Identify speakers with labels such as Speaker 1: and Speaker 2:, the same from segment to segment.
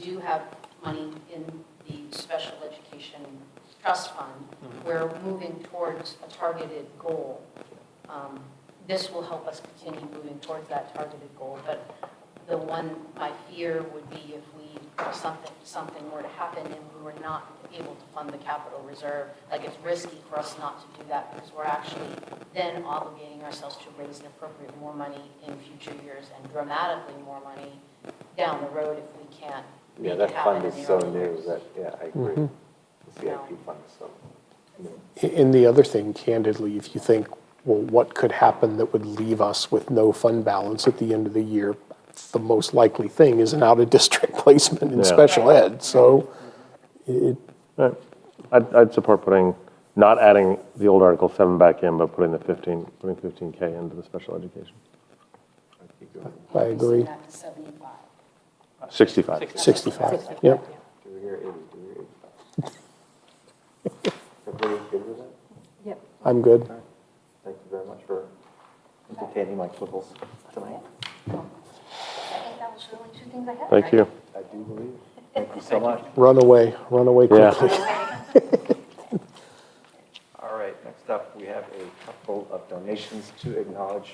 Speaker 1: do have money in the special education trust fund. We're moving towards a targeted goal. Um, This will help us continue moving towards that targeted goal, but the one, my fear would be if we, if something, something were to happen and we were not able to fund the capital reserve, like it's risky for us not to do that because we're actually then obligating ourselves to raise and appropriate more money in future years and dramatically more money down the road if we can't.
Speaker 2: Yeah, that fund is so new that, yeah, I agree. The CIP fund is so new.
Speaker 3: And the other thing, candidly, if you think, well, what could happen that would leave us with no fund balance at the end of the year? The most likely thing is an out-of-district placement in
Speaker 4: Yeah.
Speaker 3: special ed, so it,
Speaker 4: I'd, I'd support putting, not adding the old Article 7 back in, but putting the 15, putting 15K into the special education.
Speaker 3: I agree.
Speaker 1: Back to 75.
Speaker 4: 65.
Speaker 3: 65, yep.
Speaker 2: Do we hear 80, do we hear 85? Everybody good with that?
Speaker 1: Yep.
Speaker 3: I'm good.
Speaker 2: Thank you very much for entertaining my quibbles tonight.
Speaker 1: I think that was the only two things I had.
Speaker 4: Thank you.
Speaker 2: I do believe. Thank you so much.
Speaker 3: Run away, run away
Speaker 4: Yeah.
Speaker 3: quickly.
Speaker 2: All right, next up, we have a couple of donations to acknowledge.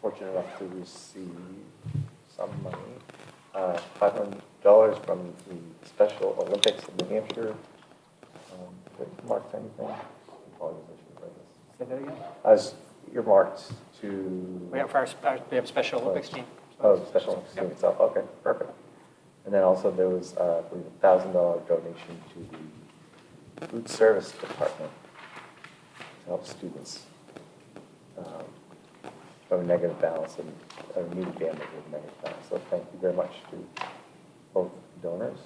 Speaker 2: Fortunate enough to receive some money. Uh, $500 from the Special Olympics in New Hampshire. Um, that Marked anything? Apologies, I should write this.
Speaker 5: Say that again?
Speaker 2: As earmarked to.
Speaker 5: We have, our, our- we have a Special Olympics team.
Speaker 2: Oh, the Special Olympics team itself, okay, perfect. And then also there was, uh, I believe, a thousand dollar donation to the food service department to help students um, from a negative balance and, or new families with negative balance. So thank you very much to both donors.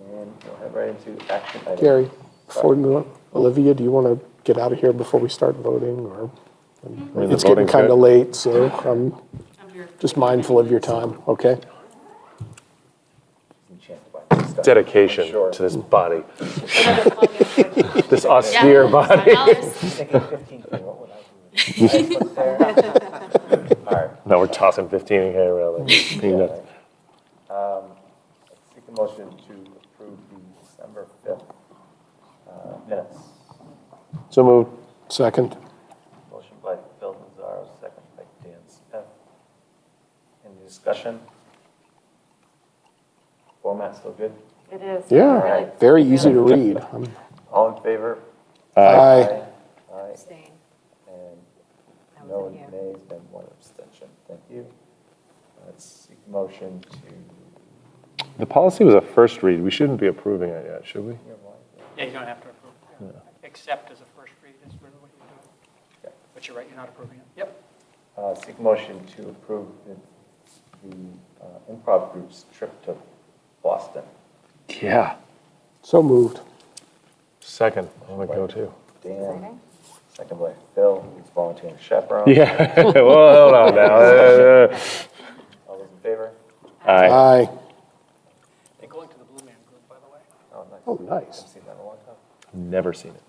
Speaker 2: And we'll head right into action items.
Speaker 3: Gary, before
Speaker 2: Sorry.
Speaker 3: we move on, Olivia, do you want to get out of here before we start voting, or?
Speaker 4: I mean, the
Speaker 3: It's getting
Speaker 4: voting's
Speaker 3: kind
Speaker 4: good.
Speaker 3: of late, so I'm just mindful of your time, okay?
Speaker 2: Enchanted by this stuff.
Speaker 4: Dedication
Speaker 2: Sure.
Speaker 4: to this body,
Speaker 1: Thank
Speaker 4: this austere body.
Speaker 2: Thinking 15, what would I do? I put there. All right.
Speaker 4: No, we're tossing 15K around like peanuts.
Speaker 2: Um, I Seek a motion to approve the December 5th uh, minutes.
Speaker 4: So moved.
Speaker 3: Second,
Speaker 2: Motion by Phil Nazaro, second by Dan Smith. Any discussion? Format still good?
Speaker 6: It is.
Speaker 3: yeah,
Speaker 2: Alright.
Speaker 3: very easy to read. Um, I'm-
Speaker 2: All in favor?
Speaker 4: Uh,
Speaker 3: Aye.
Speaker 2: Aye.
Speaker 6: Abstain.
Speaker 2: And
Speaker 6: I
Speaker 2: no
Speaker 6: wasn't here.
Speaker 2: nays and one abstention. Thank you. Let's seek a motion to,
Speaker 4: The policy was a first read. We shouldn't be approving it yet, should we?
Speaker 5: Yeah, you don't have to approve. Except as a first read is really what you're doing. But you're right, you're not approving it. Yep.
Speaker 2: uh, seek a motion to approve the- the uh, improv group's trip to Boston.
Speaker 4: Yeah.
Speaker 3: So moved.
Speaker 4: Second, I want to go too.
Speaker 2: Dan, second by Phil, who's volunteering to chaperone.
Speaker 4: Yeah, well, hold on now. Uh,
Speaker 2: All those in favor?
Speaker 4: Aye.
Speaker 3: Aye.
Speaker 5: They're going to the Blue Man Group, by the way.
Speaker 2: Oh, nice.
Speaker 3: Oh, nice.
Speaker 2: I've seen that in a long time.
Speaker 4: Never seen it.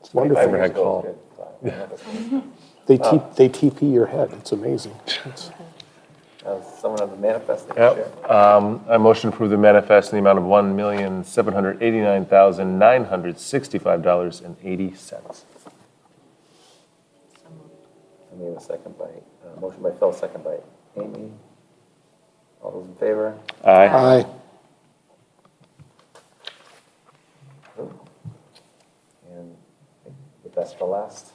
Speaker 3: It's wonderful.
Speaker 4: Favorite head
Speaker 2: School
Speaker 4: call.
Speaker 2: is good. Uh, yeah.
Speaker 3: They T, they TP your head. It's amazing. It's-
Speaker 2: Uh, Someone on the manifest that you shared.
Speaker 4: Yep. Um, I motion to approve the manifest in the amount of one million seven hundred eighty-nine thousand nine hundred sixty-five dollars and eighty cents.
Speaker 2: I made a second by, uh, motion by Phil, second by Amy. All those in favor?
Speaker 4: Aye.
Speaker 3: Aye.
Speaker 2: And I think the best for last.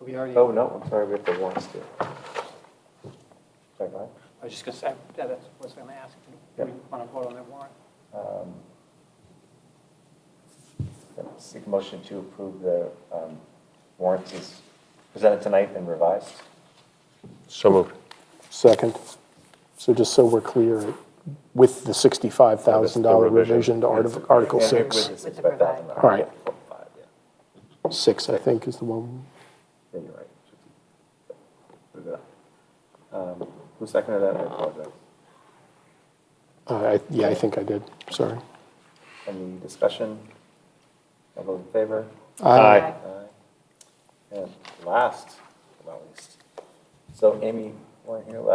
Speaker 5: We already,
Speaker 2: Oh, no, I'm sorry, we have the warrants too. Sorry, go ahead.
Speaker 5: I was just going to say, yeah, that's what I was going to ask. Do we want to vote on that warrant?
Speaker 2: Yep, Seek a motion to approve the um, warrants as presented tonight and revised.
Speaker 4: So moved.
Speaker 3: Second. So just so we're clear, with the $65,000 revision to Arti- Article
Speaker 2: Yeah,
Speaker 3: Six,
Speaker 2: With the
Speaker 6: With the
Speaker 2: sixty-five thousand.
Speaker 3: All right.
Speaker 2: Five, yeah.
Speaker 3: six, I think, is the one.
Speaker 2: Yeah, you're right. Move it up. Um, Who seconded that? I apologize.
Speaker 3: Uh, I- Yeah, I think I did. Sorry.
Speaker 2: Any discussion? All those in favor?
Speaker 3: Aye.
Speaker 2: Aye. And last, but not least. So Amy, weren't here last